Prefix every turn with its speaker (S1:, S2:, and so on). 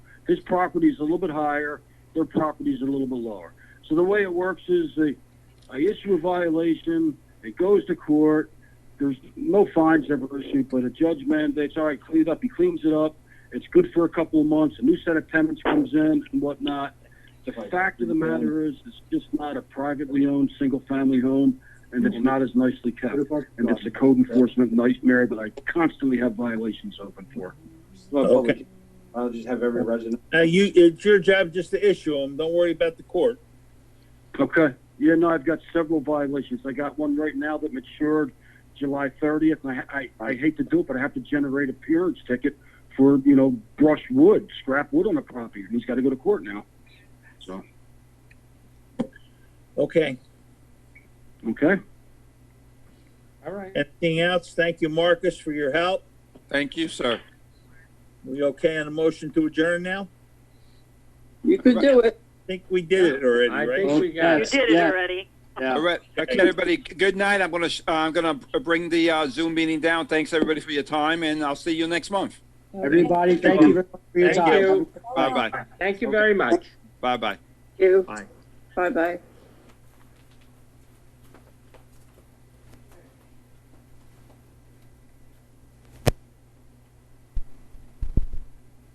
S1: His property is a little bit higher, their property is a little bit lower. So the way it works is they, I issue a violation, it goes to court, there's no fines ever issued, but a judge mandates, all right, clean it up. He cleans it up. It's good for a couple of months. A new set of tenants comes in and whatnot. The fact of the matter is, it's just not a privately owned single family home, and it's not as nicely kept. And it's a code enforcement nightmare that I constantly have violations open for.
S2: Well,
S3: Okay.
S2: public- I'll just have every resident.
S3: Uh, you, it's your job just to issue them. Don't worry about the court.
S1: Okay. Yeah, no, I've got several violations. I got one right now that matured July 30th, and I, I, I hate to do it, but I have to generate a appearance ticket for, you know, brush wood, scrap wood on the property, and he's got to go to court now. So,
S3: Okay.
S1: okay.
S2: All right.
S3: Anything else? Thank you, Marcus, for your help.
S4: Thank you, sir.
S3: We okay on a motion to adjourn now?
S5: You could do it.
S3: I think we did it already,
S2: I
S3: right?
S2: think we got
S6: You
S2: it.
S6: did it already.
S4: All right, okay, everybody, g- good night. I'm gonna, sh- uh, I'm gonna bring the uh, Zoom meeting down. Thanks, everybody, for your time, and I'll see you next month.
S7: Everybody, thank you very much for your
S3: Thank
S7: time.
S2: Thank you.
S4: Bye-bye,
S2: Thank you very much.
S4: bye-bye.
S5: You.
S2: Bye.
S5: Bye bye.